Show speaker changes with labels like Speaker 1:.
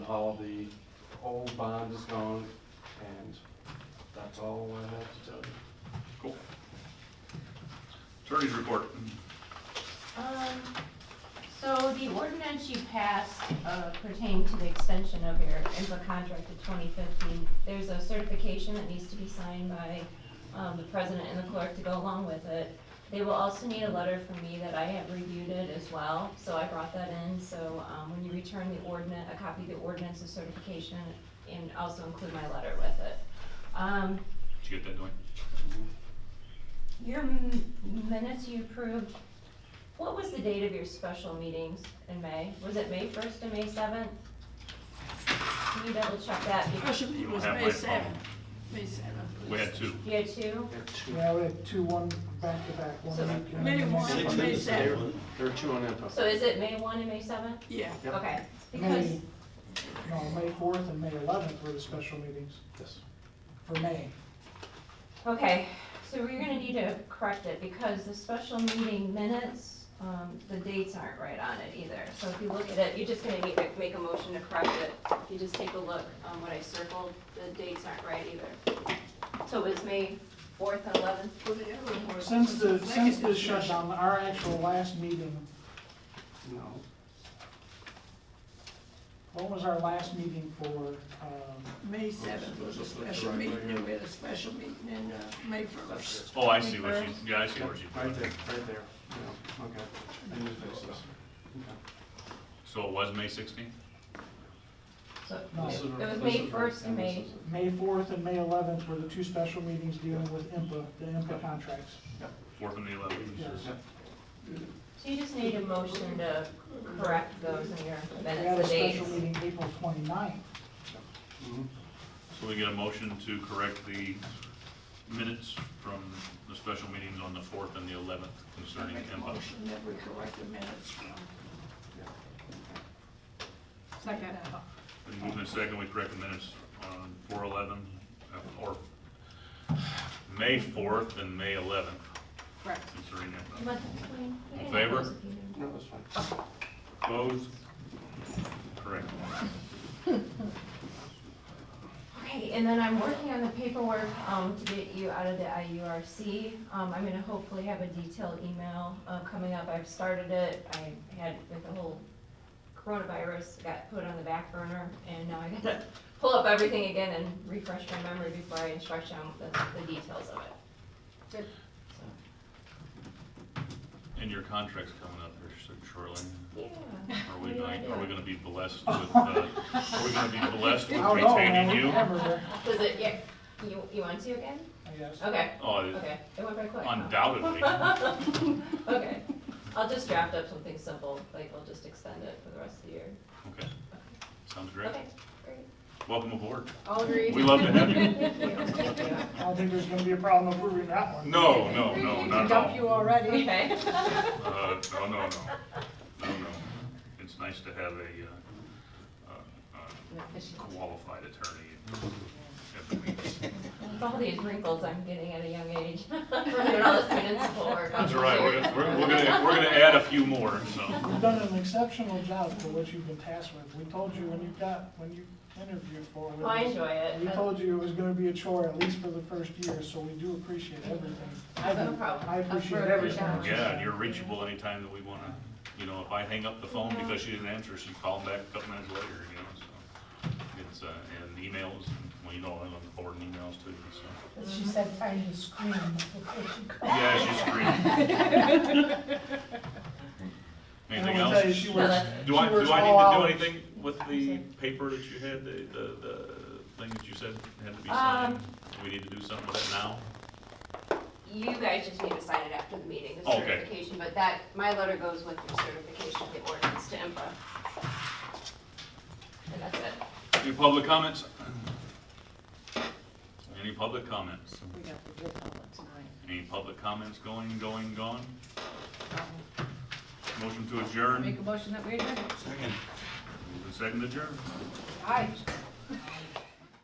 Speaker 1: how the old bond is going, and that's all I have to tell you.
Speaker 2: Cool. Attorney's report.
Speaker 3: Um, so the ordinance you passed uh, pertaining to the extension of your IMPA contract to twenty fifteen, there's a certification that needs to be signed by, um, the president and the clerk to go along with it. They will also need a letter from me that I have reviewed it as well, so I brought that in, so, um, when you return the ordinance, a copy of the ordinance of certification, and also include my letter with it. Um,
Speaker 2: Did you get that, Dwayne?
Speaker 3: your m- minutes you approved, what was the date of your special meetings in May? Was it May first and May seventh? Can you double check that?
Speaker 4: Special
Speaker 2: You
Speaker 4: meeting
Speaker 2: don't
Speaker 4: Oh, was
Speaker 2: have
Speaker 4: May
Speaker 2: my
Speaker 4: seventh,
Speaker 2: phone.
Speaker 4: May seventh.
Speaker 2: We had two.
Speaker 3: You had two?
Speaker 1: There are two-
Speaker 5: Yeah, we had two, one back-to-back, one
Speaker 3: So-
Speaker 5: week. and
Speaker 4: Maybe
Speaker 5: then-
Speaker 4: one.
Speaker 1: Six
Speaker 4: May
Speaker 1: in-
Speaker 4: seven.
Speaker 1: There are two on info.
Speaker 3: So is it May one and May seventh?
Speaker 4: Yeah,
Speaker 1: Yep.
Speaker 3: Okay, because,
Speaker 5: May, no, May fourth and May eleventh were the special meetings
Speaker 1: Yes.
Speaker 5: for May.
Speaker 3: okay, so we're gonna need to correct it because the special meeting minutes, um, the dates aren't right on it either. So if you look at it, you're just gonna need to make a motion to correct it. If you just take a look, um, what I circled, the dates aren't right either. So it was May fourth and eleventh?
Speaker 4: for the other one.
Speaker 5: Since the,
Speaker 4: Second
Speaker 5: since the
Speaker 4: discussion.
Speaker 5: shutdown, our actual last meeting,
Speaker 1: No.
Speaker 5: what was our last meeting for, um,
Speaker 4: May seventh was a special meeting, and we had a special meeting in, uh, May first.
Speaker 2: Oh, I see what she's, yeah, I see what she's
Speaker 1: Right there,
Speaker 2: doing.
Speaker 1: right there. Yeah, okay. I need to fix this. Okay.
Speaker 2: So it was May sixteenth?
Speaker 3: So
Speaker 5: No.
Speaker 1: This is-
Speaker 3: It was
Speaker 1: this
Speaker 3: May
Speaker 1: is-
Speaker 3: 1st and May-
Speaker 1: this is-
Speaker 5: May fourth and May eleventh were the two special meetings dealing with IMPA, the IMPA contracts.
Speaker 2: Fourth and the eleventh.
Speaker 5: Yes.
Speaker 3: so you just need a motion to correct those in your
Speaker 5: We had a
Speaker 3: minutes, the dates.
Speaker 5: special meeting April 29th.
Speaker 1: Mhm.
Speaker 2: So we get a motion to correct the minutes from the special meetings on the fourth and the eleventh
Speaker 4: I
Speaker 2: concerning
Speaker 4: make a
Speaker 2: Kemba.
Speaker 4: motion that we correct the minutes from. Second.
Speaker 2: Been moved and second, we correct the minutes on four eleven, or May fourth and May eleventh
Speaker 4: Correct.
Speaker 2: concerning Kemba.
Speaker 3: But-
Speaker 2: In favor?
Speaker 1: No, that's fine.
Speaker 2: Opposed? Correct.
Speaker 3: Okay, and then I'm working on the paperwork um, to get you out of the IURC. Um, I'm gonna hopefully have a detailed email uh, coming up. I've started it. I had with the whole coronavirus, got put on the back burner, and now I gotta pull up everything again and refresh my memory before I instruct you on the the details of it.
Speaker 2: And your contract's coming up here shortly.
Speaker 3: Yeah.
Speaker 2: Are we
Speaker 3: What do you
Speaker 2: going,
Speaker 3: wanna
Speaker 2: are we
Speaker 3: do?
Speaker 2: gonna be blessed with, uh, are we gonna be blessed
Speaker 5: I
Speaker 2: with
Speaker 5: don't know, man,
Speaker 2: retaining
Speaker 5: we
Speaker 2: you?
Speaker 5: never were,
Speaker 3: Does it, yeah, you, you want to again?
Speaker 5: I guess.
Speaker 3: Okay,
Speaker 2: Oh,
Speaker 3: okay, it went very quick. huh?
Speaker 2: undoubtedly.
Speaker 3: Okay, I'll just draft up something simple, like I'll just extend it for the rest of the year.
Speaker 2: Okay, sounds great.
Speaker 3: Okay, great.
Speaker 2: Welcome aboard.
Speaker 3: I'll agree.
Speaker 2: We love to have you.
Speaker 3: Okay.
Speaker 5: I don't think there's gonna be a problem approving that one.
Speaker 2: No, no, no, Oh, not at all.
Speaker 4: already.
Speaker 2: Uh, no, no, no, no, no. It's nice to have a, uh, uh, uh, qualified attorney every week.
Speaker 3: With all these wrinkles I'm getting at a young age, running all this municipal work.
Speaker 2: That's all right, we're, gonna- we're we're gonna, we're gonna add a few more, so.
Speaker 5: You've done an exceptional job for what you've been tasked with. We told you when you got, when you interviewed for
Speaker 3: Well, I
Speaker 5: it.
Speaker 3: enjoy it.
Speaker 5: We
Speaker 3: Uh,
Speaker 5: told you it was gonna be a chore, at least for the first year, so we do appreciate everything. I
Speaker 3: No
Speaker 5: do.
Speaker 3: problem.
Speaker 5: I appreciate
Speaker 3: Up for a
Speaker 5: everything.
Speaker 3: challenge.
Speaker 2: Yeah, and you're reachable anytime that we wanna, you know, if I hang up the phone because she didn't answer, she called back a couple minutes later, you know, so. It's, uh, and emails, well, you know, I'm on the board and emails too, so.
Speaker 6: But she said, find the screen before she called.
Speaker 2: Yeah, she's great.
Speaker 5: And I
Speaker 2: Anything
Speaker 5: will tell you,
Speaker 2: else?
Speaker 5: she
Speaker 3: No,
Speaker 5: works,
Speaker 3: that's-
Speaker 2: Do I,
Speaker 5: she works
Speaker 2: do I
Speaker 5: all
Speaker 2: need to do
Speaker 5: hours.
Speaker 2: anything with the paper that you had, the, the, the thing that you said had to be signed? Do we need to do something with it now?
Speaker 3: You guys just need to sign it after the meeting, the
Speaker 2: Okay.
Speaker 3: certification, but that, my letter goes with your certification of the ordinance to IMPA. And that's it.
Speaker 2: Any public comments? Any public comments?
Speaker 7: We got the good public tonight.
Speaker 2: Any public comments going, going, gone? Motion to adjourn.
Speaker 7: Make a Um, motion that we adjourn.
Speaker 2: Second. Move to second adjourn.
Speaker 7: Aye.